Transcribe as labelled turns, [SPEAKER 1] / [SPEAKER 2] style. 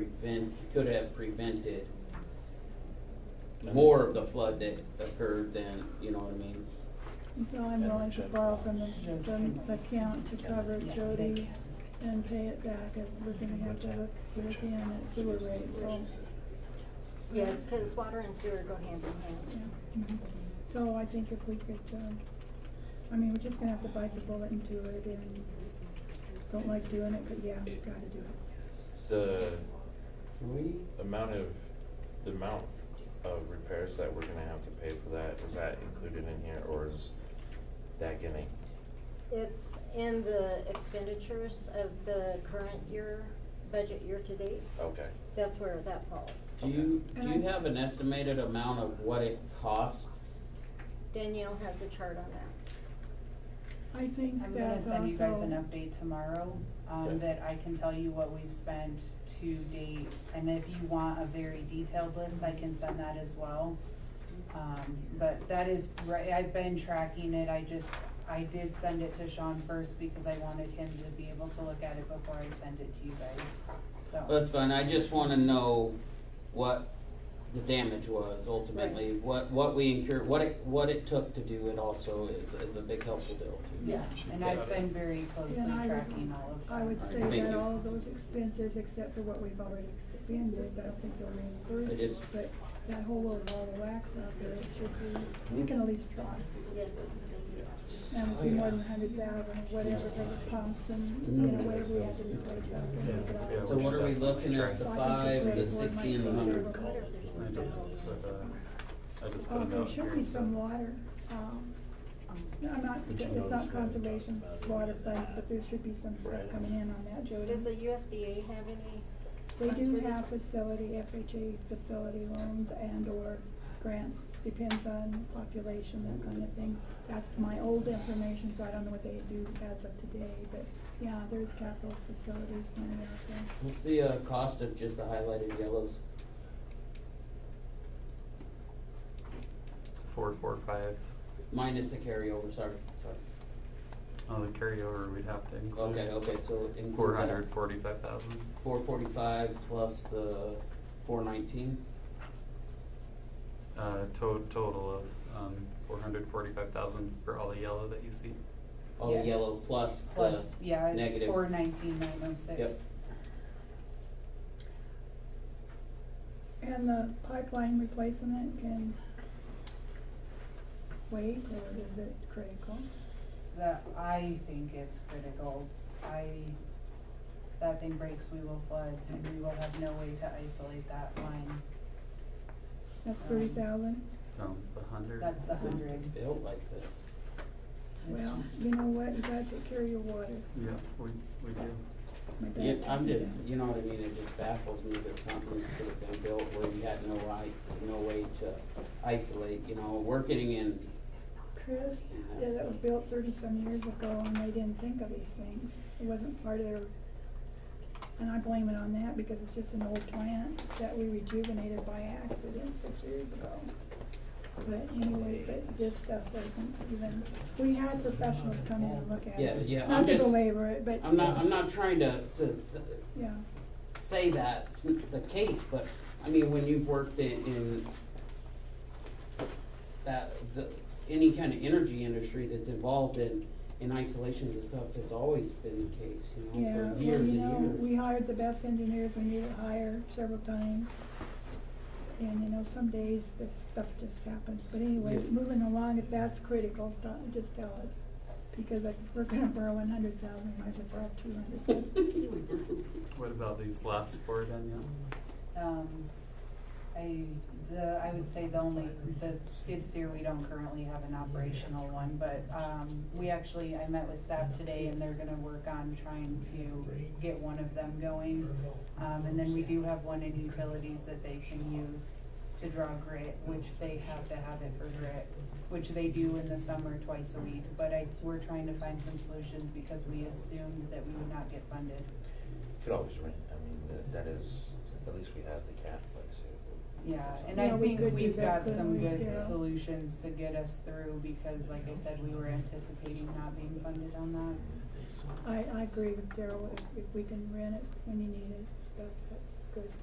[SPEAKER 1] prevent, could have prevented more of the flood that occurred than, you know what I mean?
[SPEAKER 2] And So I'm willing to borrow from the, from the account to cover Jody and pay it back if we're gonna have to look, look in at sewer rates, so.
[SPEAKER 3] Yeah, because water and sewer go hand in
[SPEAKER 2] yeah.
[SPEAKER 3] hand.
[SPEAKER 2] So I think if we could, um, I mean, we're just gonna have to bite the bullet and do it and don't like doing it, but yeah, we've gotta do it.
[SPEAKER 4] The
[SPEAKER 1] Three?
[SPEAKER 4] amount of, the amount of repairs that we're gonna have to pay for that, is that included in here, or is that gonna?
[SPEAKER 3] It's in the expenditures of the current year, budget year to date.
[SPEAKER 4] Okay,
[SPEAKER 3] That's where that falls.
[SPEAKER 1] Do you, do you
[SPEAKER 2] And I-
[SPEAKER 1] have an estimated amount of what it cost?
[SPEAKER 3] Danielle has a chart on that.
[SPEAKER 2] I think
[SPEAKER 5] I'm
[SPEAKER 2] that
[SPEAKER 5] gonna
[SPEAKER 2] also.
[SPEAKER 5] send you guys an update tomorrow,
[SPEAKER 4] Okay.
[SPEAKER 5] um, that I can tell you what we've spent to date. And if you want a very detailed list, I can send that as well. Um, but that is, right, I've been tracking it, I just, I did send it to Sean first because I wanted him to be able to look at it before I sent it to you guys, so.
[SPEAKER 1] That's fine, I just wanna know what the damage was ultimately, what, what we incurred, what it, what it took to do it also is, is a big helpful deal too.
[SPEAKER 5] Yeah, and I've been very closely
[SPEAKER 2] And I would-
[SPEAKER 5] tracking all of that.
[SPEAKER 2] I would say
[SPEAKER 1] Thank
[SPEAKER 2] that
[SPEAKER 1] you.
[SPEAKER 2] all those expenses, except for what we've already expended, I don't think they're
[SPEAKER 1] It is-
[SPEAKER 2] reimbursable, but that whole little ball of wax out there, it should be, we can at least try.
[SPEAKER 3] Yeah.
[SPEAKER 2] And it'd be more than a hundred thousand, whatever, for the pumps and, you know, whatever we have to replace out there. we could all-
[SPEAKER 1] So what are we looking at, the
[SPEAKER 2] So I think
[SPEAKER 1] five,
[SPEAKER 2] just
[SPEAKER 1] the
[SPEAKER 2] raise one
[SPEAKER 1] sixty, and the
[SPEAKER 2] might be
[SPEAKER 1] hundred?
[SPEAKER 2] a little
[SPEAKER 3] Wonder
[SPEAKER 2] bit.
[SPEAKER 3] if there's
[SPEAKER 6] I
[SPEAKER 3] something
[SPEAKER 6] just,
[SPEAKER 3] else.
[SPEAKER 6] uh, I just put
[SPEAKER 2] Oh,
[SPEAKER 6] it
[SPEAKER 2] there
[SPEAKER 6] out
[SPEAKER 2] should
[SPEAKER 6] here.
[SPEAKER 2] be some water, um, no, I'm not,
[SPEAKER 6] Did you
[SPEAKER 2] it's
[SPEAKER 6] notice
[SPEAKER 2] not
[SPEAKER 6] that?
[SPEAKER 2] conservation water funds, but there should be some stuff coming in on that, Jody.
[SPEAKER 3] Does the USDA have any?
[SPEAKER 2] They
[SPEAKER 3] funds
[SPEAKER 2] do
[SPEAKER 3] for
[SPEAKER 2] have
[SPEAKER 3] this?
[SPEAKER 2] facility, FHA facility loans and or grants, depends on population, that kind of thing. That's my old information, so I don't know what they do as of today, but yeah, there's capital facilities money out there.
[SPEAKER 1] What's the, uh, cost of just the highlighted yellows?
[SPEAKER 6] Four, four, five.
[SPEAKER 1] Minus the carryover, sorry, sorry.
[SPEAKER 6] On the carryover, we'd have to include.
[SPEAKER 1] Okay, okay, so include that.
[SPEAKER 6] Four hundred forty-five thousand.
[SPEAKER 1] Four forty-five plus the four nineteen,
[SPEAKER 6] Uh, to- total of, um, four hundred forty-five thousand for all the yellow that you see.
[SPEAKER 1] all the
[SPEAKER 5] Yes.
[SPEAKER 1] Oh, yellow plus the.
[SPEAKER 5] Plus, yeah, it's
[SPEAKER 1] negative.
[SPEAKER 5] four nineteen nine oh six.
[SPEAKER 1] Yep.
[SPEAKER 2] And the pipeline replacement can wait, or is it critical?
[SPEAKER 5] that I think it's critical. I, if that thing breaks, we will flood and we will have no way to isolate that line.
[SPEAKER 2] That's thirty thousand?
[SPEAKER 6] No, it's the hundred.
[SPEAKER 5] That's the
[SPEAKER 1] It's
[SPEAKER 5] hundred.
[SPEAKER 1] built like this.
[SPEAKER 5] It's
[SPEAKER 2] Well,
[SPEAKER 5] just-
[SPEAKER 2] you know what, you gotta take care of your water.
[SPEAKER 6] Yeah, we, we do.
[SPEAKER 2] My dad
[SPEAKER 1] Yeah,
[SPEAKER 2] told
[SPEAKER 1] I'm
[SPEAKER 2] me
[SPEAKER 1] just,
[SPEAKER 2] that.
[SPEAKER 1] you know what I mean, it just baffles me that something could have been built where you had no right, no way to isolate, you know, we're getting in.
[SPEAKER 2] Chris, yeah, that was built thirty-some years ago and they didn't think of these things. It wasn't part of their, and I blame it on that because it's just an old plant that we rejuvenated by accident six years ago. But anyway, but this stuff wasn't even, we had professionals come in and look at it.
[SPEAKER 1] Yeah, yeah, I'm
[SPEAKER 2] Not to
[SPEAKER 1] just-
[SPEAKER 2] belabor it, but,
[SPEAKER 1] I'm not, I'm not trying to, to s-
[SPEAKER 2] yeah,
[SPEAKER 1] say that's n- the case, but, I mean, when you've worked in, in that, the, any kind of energy industry that's involved in, in isolations and stuff, it's always been the case, you
[SPEAKER 2] yeah.
[SPEAKER 1] know,
[SPEAKER 2] Well,
[SPEAKER 1] for years and
[SPEAKER 2] you
[SPEAKER 1] years.
[SPEAKER 2] know, we hired the best engineers we needed to hire several times. And you know, some days this stuff just happens, but anyway,
[SPEAKER 1] Yeah.
[SPEAKER 2] moving along, if that's critical, t- just tell us. Because if we're gonna borrow one hundred thousand, we might as well borrow two hundred.
[SPEAKER 6] What about these last four, Danielle?
[SPEAKER 5] Um, I, the, I would say the only, the skid steer, we don't currently have an operational one, but, um, we actually, I met with staff today and they're gonna work on trying to get one of them going. Um, and then we do have one in utilities that they can use to draw grit, which they have to have it for grit, which they do in the summer twice a week, but I, we're trying to find some solutions because we assumed that we would not get funded.
[SPEAKER 4] could always rent, I mean, that- that is, at least we have the cap, like I said.
[SPEAKER 5] Yeah, and
[SPEAKER 2] Yeah,
[SPEAKER 5] I
[SPEAKER 2] we
[SPEAKER 5] think
[SPEAKER 2] could do
[SPEAKER 5] we've
[SPEAKER 2] that,
[SPEAKER 5] got some
[SPEAKER 2] couldn't we?
[SPEAKER 5] good
[SPEAKER 2] Yeah.
[SPEAKER 5] solutions to get us through, because like I said, we were anticipating not being funded on that.
[SPEAKER 2] I, I agree with Daryl, if, if we can rent it when you need it, stuff, that's good.